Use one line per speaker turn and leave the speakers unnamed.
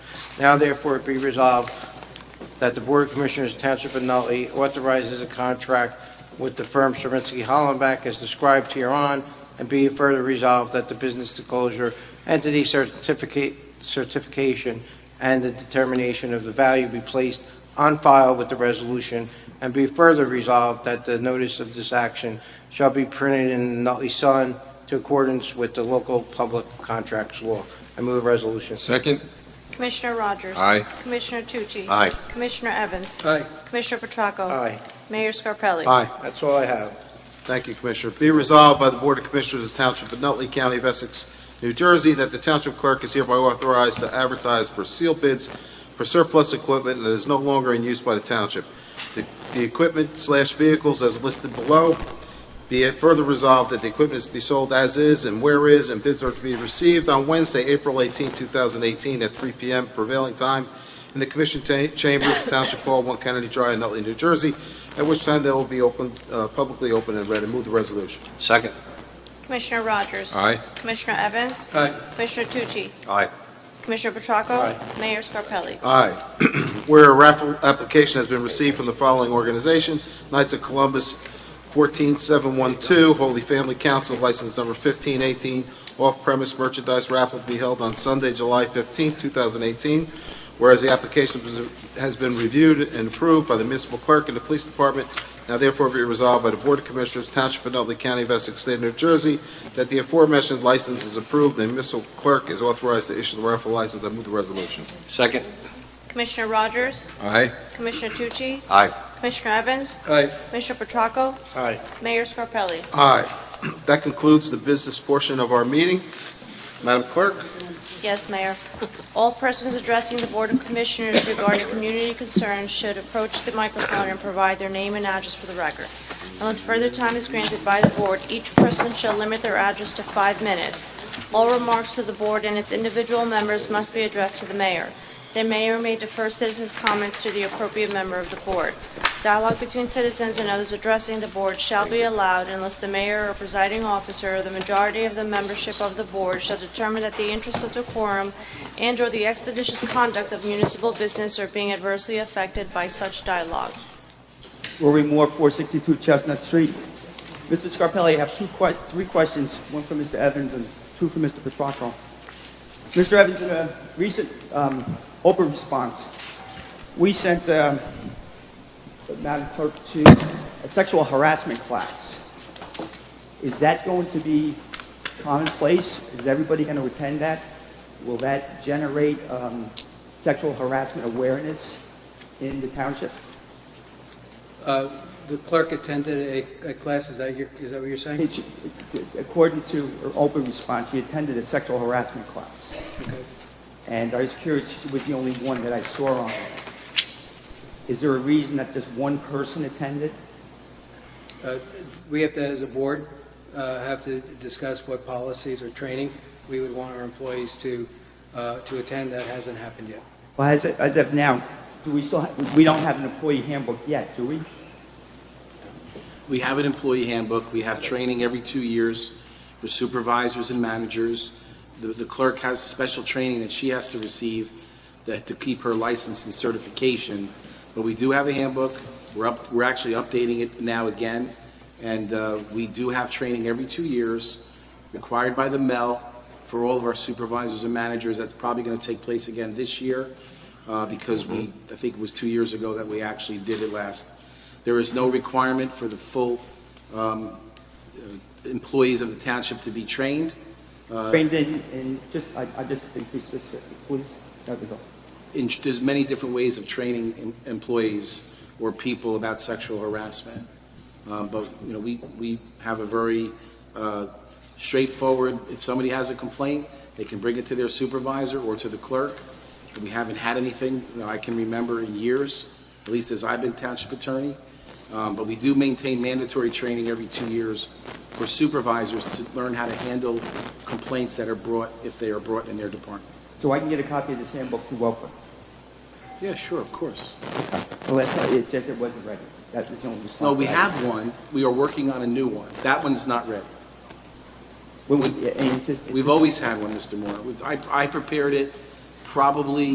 Now therefore be resolved that the Board of Commissioners of Township of Nutley authorizes a contract with the firm Serensky Hollenbach as described hereon, and be it further resolved that the business disclosure entity certificate, certification and the determination of the value be placed on file with the resolution, and be further resolved that the notice of this action shall be printed in the Nutley Sun to accordance with the local public contracts law. I move the resolution.
Second?
Commissioner Rogers?
Aye.
Commissioner Tucci?
Aye.
Commissioner Evans?
Aye.
Commissioner Petracco?
Aye.
Mayor Scarpelli?
Aye.
That's all I have.
Thank you, Commissioner. Be resolved by the Board of Commissioners of the Township of Nutley County of Essex, New Jersey, that the Township Clerk is hereby authorized to advertise for seal bids for surplus equipment that is no longer in use by the Township. The- The equipment slash vehicles as listed below, be it further resolved that the equipment is to be sold as is and where is, and bids are to be received on Wednesday, April 18, 2018, at 3 p.m. prevailing time in the Commission ta- Chambers, Township Hall, 1 Kennedy Drive, Nutley, New Jersey, at which time they will be open, uh, publicly open and read. I move the resolution.
Second.
Commissioner Rogers?
Aye.
Commissioner Evans?
Aye.
Commissioner Tucci?
Aye.
Commissioner Petracco? Mayor Scarpelli?
Aye. Where a raffle application has been received from the following organization, Knights of Columbus 14712, Holy Family Council, license number 1518, off-premise merchandise raffle to be held on Sunday, July 15, 2018. Whereas the application was- has been reviewed and approved by the municipal clerk and the police department, now therefore be resolved by the Board of Commissioners, Township of Nutley County of Essex, State of New Jersey, that the aforementioned license is approved and the municipal clerk is authorized to issue the raffle license. I move the resolution.
Second.
Commissioner Rogers?
Aye.
Commissioner Tucci?
Aye.
Commissioner Evans?
Aye.
Commissioner Petracco?
Aye.
Mayor Scarpelli?
Aye. That concludes the business portion of our meeting. Madam Clerk?
Yes, Mayor. All persons addressing the Board of Commissioners regarding community concerns should approach the microphone and provide their name and address for the record. Unless further time is granted by the Board, each person shall limit their address to five minutes. All remarks to the Board and its individual members must be addressed to the Mayor. The Mayor may defer citizens' comments to the appropriate member of the Board. Dialogue between citizens and others addressing the Board shall be allowed unless the Mayor or presiding officer or the majority of the membership of the Board shall determine that the interest of decorum and/or the expeditious conduct of municipal business are being adversely affected by such dialogue.
Rory Moore, 462 Chestnut Street. Mr. Scarpelli, I have two que- three questions, one for Mr. Evans and two for Mr. Petracco. Mr. Evans, in a recent um, Oprah response, we sent um, Madam Clerk to a sexual harassment class. Is that going to be commonplace? Is everybody going to attend that? Will that generate um, sexual harassment awareness in the township?
Uh, The clerk attended a- a class, is that your, is that what you're saying?
It- According to her open response, she attended a sexual harassment class. And I was curious, she was the only one that I saw on it. Is there a reason that just one person attended?
Uh, We have to, as a board, uh, have to discuss what policies or training we would want our employees to, uh, to attend. That hasn't happened yet.
Well, as, as of now, do we still, ha- we don't have an employee handbook yet, do we?
We have an employee handbook, we have training every two years with supervisors and managers. The the clerk has special training that she has to receive that to keep her license and certification. But we do have a handbook, we're up, we're actually updating it now again, and uh, we do have training every two years required by the MEL for all of our supervisors and managers. That's probably going to take place again this year uh, because we, I think it was two years ago that we actually did it last. There is no requirement for the full um, uh, employees of the township to be trained. Uh,
Trained in, in, just, I, I just, increase this, please, that was all.
In- There's many different ways of training em- employees or people about sexual harassment. Um, But, you know, we, we have a very uh, straightforward, if somebody has a complaint, they can bring it to their supervisor or to the clerk. We haven't had anything that I can remember in years, at least as I've been township attorney. Um, But we do maintain mandatory training every two years for supervisors to learn how to handle complaints that are brought, if they are brought in their department.
So I can get a copy of this handbook through Oprah.
Yeah, sure, of course.
Well, that's, it just, it wasn't ready. That was the only response.
No, we
I had.
have one. We are working on a new one. That one's not ready.
When we, and it's just- it's
We've always had one, Mr. Moore. We've- I, I prepared it probably